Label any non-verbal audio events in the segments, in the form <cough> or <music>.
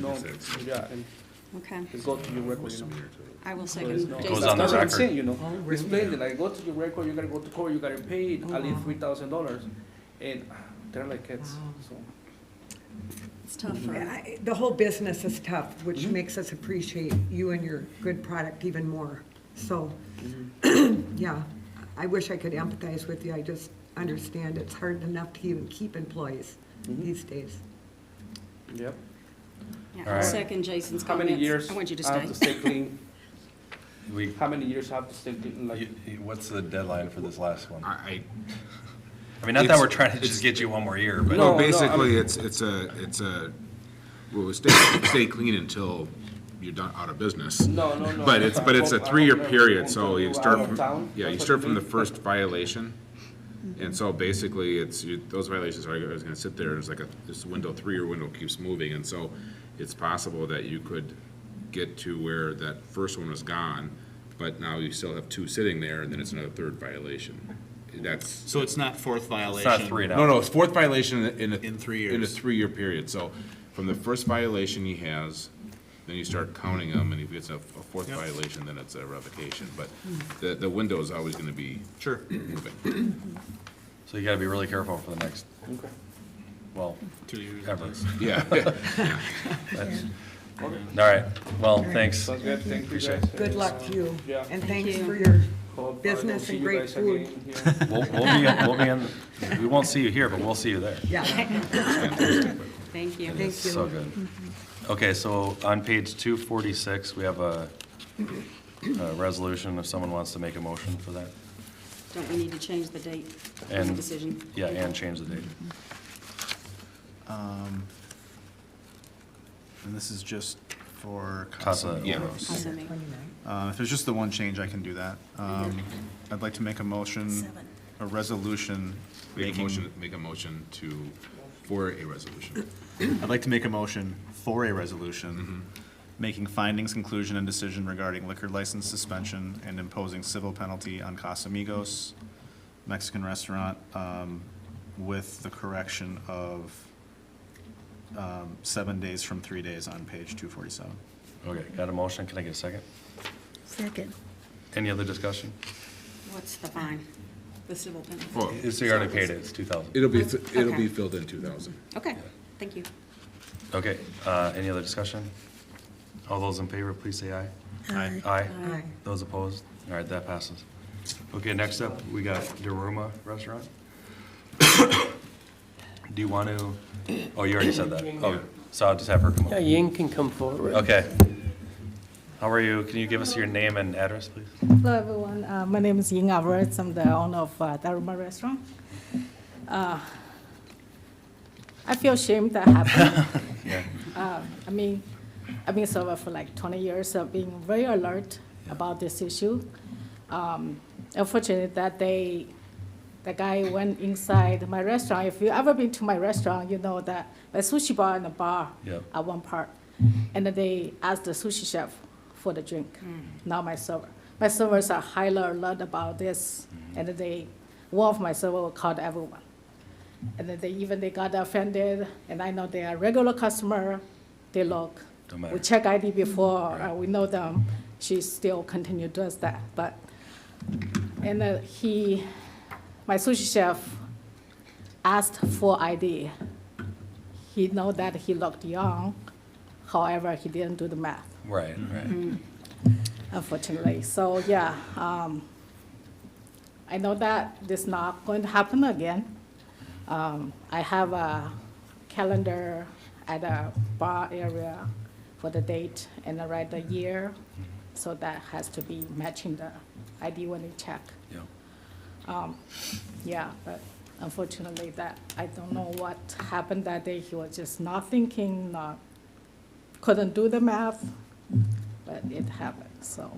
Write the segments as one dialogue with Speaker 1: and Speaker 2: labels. Speaker 1: No,
Speaker 2: Six.
Speaker 1: yeah, and
Speaker 3: Okay,
Speaker 1: it's go to your record, you know.
Speaker 3: I will
Speaker 1: So it's
Speaker 3: second
Speaker 1: not-
Speaker 3: Jason's.
Speaker 2: Goes on the
Speaker 1: That's what I'm
Speaker 2: record.
Speaker 1: saying, you know, it's plainly like, go to your record, you gotta go to court, you gotta pay
Speaker 4: Uh-huh.
Speaker 1: at least three thousand dollars. And ah, they're like kids,
Speaker 4: Uh-huh.
Speaker 1: so.
Speaker 3: It's tough for
Speaker 4: Yeah, I- The whole business is tough, which
Speaker 1: Mhm.
Speaker 4: makes us appreciate you and your good product even more. So,
Speaker 1: Mm-hmm.
Speaker 4: yeah, I wish I could empathize with you. I just understand it's hard enough to even keep employees
Speaker 1: Mhm.
Speaker 4: these days.
Speaker 1: Yep.
Speaker 3: Yeah,
Speaker 2: All
Speaker 3: I'll
Speaker 2: right.
Speaker 3: second Jason's
Speaker 1: How
Speaker 3: comments.
Speaker 1: many years?
Speaker 3: I want you to
Speaker 1: have
Speaker 3: stay.
Speaker 1: stay
Speaker 2: <laughs>
Speaker 1: clean?
Speaker 5: We,
Speaker 1: How many years have to stay clean, like?
Speaker 5: you- you- what's the deadline for this last one?
Speaker 2: I,
Speaker 5: I mean, not that we're
Speaker 2: It's-
Speaker 5: trying to just get you one more year, but.
Speaker 1: No,
Speaker 2: no,
Speaker 1: no,
Speaker 2: basically, it's, it's a, it's a, well, stay, stay clean until you're done, out of business.
Speaker 1: No, no, no.
Speaker 2: But it's, but it's a three-year period, so you
Speaker 1: Out
Speaker 2: start
Speaker 1: of town,
Speaker 2: from, yeah, you
Speaker 1: that's
Speaker 2: start
Speaker 1: what
Speaker 2: from the
Speaker 1: do.
Speaker 2: first violation. And so basically, it's, you- those violations are, always gonna sit there, it's like a, this window, three-year window keeps moving, and so it's possible that you could get to where that first one was gone, but now you still have two sitting there, and then it's another third violation. That's,
Speaker 6: So it's not fourth
Speaker 5: It's
Speaker 6: violation?
Speaker 5: not three now.
Speaker 2: no, no, it's fourth violation in a.
Speaker 6: In three
Speaker 2: In a
Speaker 6: years.
Speaker 2: three-year period, so from the first violation he has, then you start counting them, and if it's a, a fourth
Speaker 6: Yep.
Speaker 2: violation, then it's a revocation, but the, the window is always gonna be
Speaker 6: Sure.
Speaker 2: moving.
Speaker 5: So you gotta be really careful for the next,
Speaker 1: Okay.
Speaker 5: well,
Speaker 6: Two years.
Speaker 5: ever.
Speaker 2: <coughs> Yeah.
Speaker 1: Okay,
Speaker 5: All right, well, thanks.
Speaker 1: sounds good, thank you guys.
Speaker 4: Good luck to you.
Speaker 1: Yeah.
Speaker 4: And
Speaker 3: Thank
Speaker 4: thanks
Speaker 3: you.
Speaker 4: for your,
Speaker 1: Hope I
Speaker 4: Business
Speaker 1: don't
Speaker 4: and
Speaker 1: see you
Speaker 4: great
Speaker 1: guys
Speaker 4: food.
Speaker 1: again here.
Speaker 5: <laughs> We'll, we'll be, we'll be in, we won't see you here, but we'll see you there.
Speaker 4: yeah,
Speaker 3: Thank you.
Speaker 4: Thank
Speaker 5: So
Speaker 4: you.
Speaker 5: good. Okay, so on page two forty-six, we have a, a resolution if someone wants to make a motion for that.
Speaker 3: Don't we need to change the date of the
Speaker 5: And-
Speaker 3: decision?
Speaker 5: Yeah, and change the date.
Speaker 6: Um, And this is just for
Speaker 5: Casa
Speaker 6: Casa.
Speaker 2: Yeah.
Speaker 5: Oros.
Speaker 3: Also me.
Speaker 6: Uh, If there's just the one change, I can do that. Um, I'd like to make a motion,
Speaker 3: Seven.
Speaker 6: a resolution
Speaker 2: Make a
Speaker 6: making,
Speaker 2: motion, make a motion to, for a resolution.
Speaker 6: I'd like to make a motion for a resolution, making findings, conclusion, and decision regarding liquor license suspension and imposing civil penalty on Casamigos Mexican Restaurant um, with the correction of um, seven days from three days on page 247.
Speaker 5: Okay, got a motion? Can I get a second?
Speaker 7: Second.
Speaker 5: Any other discussion?
Speaker 3: What's the fine? The civil penalty?
Speaker 2: Oh,
Speaker 5: It's, you already paid it, it's two thousand.
Speaker 2: it'll be, it'll
Speaker 3: Okay.
Speaker 2: be filled in two thousand.
Speaker 3: Okay, thank you.
Speaker 5: Okay, uh, any other discussion? All those in favor, please say aye.
Speaker 6: Aye.
Speaker 5: Aye.
Speaker 4: Aye.
Speaker 5: Those opposed? All right, that passes. Okay, next up, we got Daruma Restaurant. <coughs> Do you want to, oh, you already said that. Oh, so I'll just have her come
Speaker 8: Yeah,
Speaker 5: up.
Speaker 8: Ying can come forward.
Speaker 5: Okay. How are you? Can you give us your name and address, please?
Speaker 7: Hello, everyone. Uh, My name is Ying Alvarez. I'm the owner of uh, Daruma Restaurant. Uh, I feel shame that happened.
Speaker 5: Yeah.
Speaker 7: Uh, I mean, I've been sober for like 20 years. I've been very alert about this issue. Um, Unfortunately, that day, the guy went inside my restaurant. If you ever been to my restaurant, you know that my sushi bar and a bar
Speaker 5: Yep.
Speaker 7: at one part. And then they asked the sushi chef for the drink, not my server. My servers are highly alert about this, and then they, one of my server will call everyone. And then they, even they got offended, and I know they are regular customer, they look.
Speaker 5: Don't matter.
Speaker 7: We check ID before, uh, we know them, she still continue does that, but, and then he, my sushi chef asked for ID. He know that he looked young, however, he didn't do the math
Speaker 5: Right, right.
Speaker 7: unfortunately. uh, So, yeah, um, I know that this not going to happen again. Um, I have a calendar at a bar area for the date and I write the year, so that has to be matching the ID when they check. Um,
Speaker 5: Yeah.
Speaker 7: Yeah, but unfortunately, that, I don't know what happened that day. He was just not thinking, not, couldn't do the math, but it happened, so,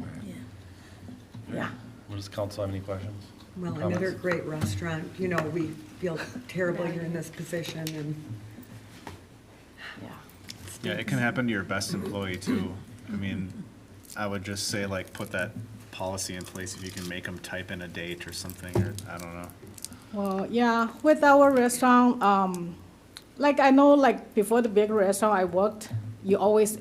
Speaker 7: yeah.
Speaker 5: Well, Does council have any questions?
Speaker 4: Well,
Speaker 5: Comments?
Speaker 4: another great restaurant, you know, we feel terrible you're in this position and,
Speaker 7: Yeah.
Speaker 6: Yeah, it can happen to your best employee too. I mean, I would just say like, put that policy in place if you can make them type in a date or something, or I don't know.
Speaker 7: Well, yeah, with our restaurant, um, like I know, like before the big restaurant I worked, you always